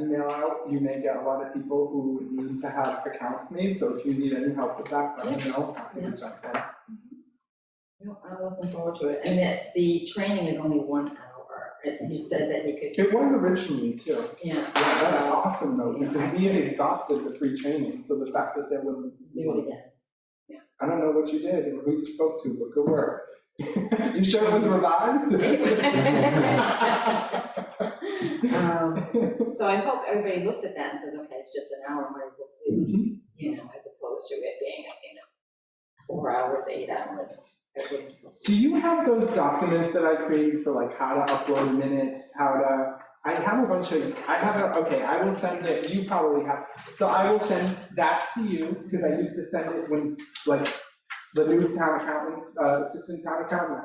email out, you may get a lot of people who need to have accounts made, so if you need any help with that, let me know, I can jump in. No, I'm looking forward to it, and that the training is only one hour, and he said that he could, It was originally too, yeah, yeah, that's awesome though, because we had exhausted the free training, so the fact that there was do it again. I don't know what you did and who you spoke to, but good work. You sure it was revised? Um, So I hope everybody looks at that and says, okay, it's just an hour, might as well do it," you know, as opposed to it being, you know, four hours, eight hours. I wouldn't- Do you have those documents that I created for like how to upload minutes, how to, I have a bunch of, I have a, okay, I will send it, you probably have. So I will send that to you, because I used to send it when, like, the new town accountant, uh, assistant town accountant.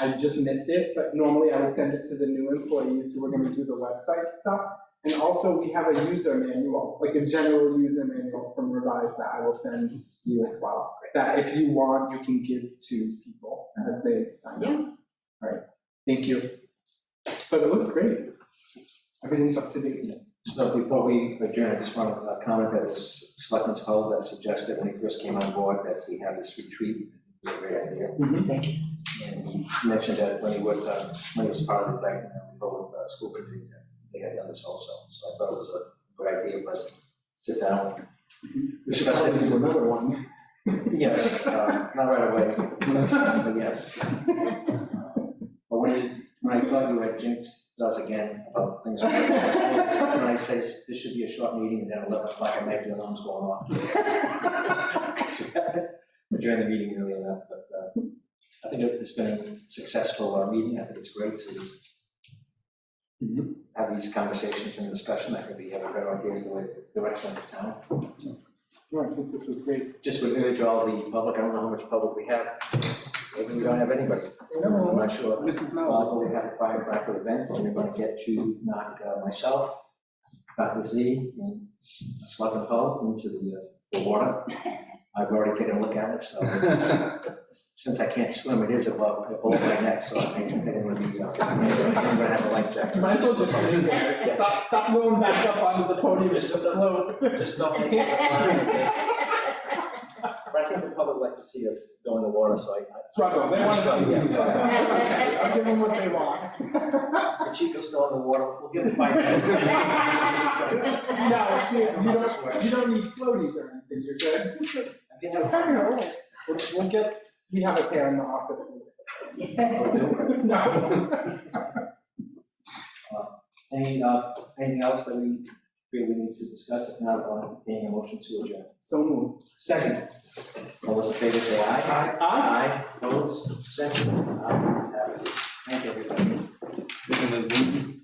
I just missed it, but normally I would send it to the new employees who are gonna do the website stuff. And also, we have a user manual, like a general user manual from Revise that I will send you as well. That if you want, you can give to people as they sign up. Yeah. Right, thank you. But it looks great. Everything's up to date. So before we adjourn, I just want to uh, comment that was Selectman's Hull that suggested when he first came on board that we have this retreat. It was a great idea. Mhm. Mm-hmm, Thank you. And he mentioned that when he worked on, when he was part of the Dyken Road uh, School Committee, that they had done this also. So I thought it was a good idea, let's sit down and discuss it. Probably do another one. Yes, uh, not right away, but yes. But when you, when I thought you had jinx does again about things, when I say this should be a short meeting and then eleven o'clock I make the alarms going off. During the meeting early enough, but uh, I think it's been a successful uh, meeting, I think it's great to have these conversations and discussion, I think we have a better idea of the way, direction of the town No, I think this is great. just would urge all the public, I don't know how much public we have, maybe we don't have anybody, I'm not sure. This is Uh, Mel. we have a firecracker event, and we're gonna get you, knock uh, myself, Dr. Z, and Selectman Hull into the, uh, the water. I've already taken a look at it, so it's- since I can't swim, it is above, above my neck, so I think I'm gonna be, uh, I'm gonna have a life jacket. You might as well just leave there. Stop, stop going back up onto the podium, just float. Just don't make it a plan, just- But I think the public likes to see us go in the water, so I. I- Struggle, they want to see you Yes. struggle. I'll give them what they want. The Chico's still in the water, we'll give him five minutes. See if he's gonna- No, you I don't know how don't, this works. you don't need floaties or anything, you're good. I mean, I- know. We'll, we'll get, we have a pair in the office. I'll do it. No. Any, uh, anything else that we feel we need to discuss, if not, I'll entertain a motion to adjourn. So moved. Second. All those in favor say aye. Aye. Aye, opposed, second, ayes have it. Thank you, everybody.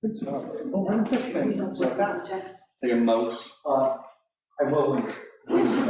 Good job. Oh, tá where's this thing? What's that? So your mouse Uh, I will, when- when you-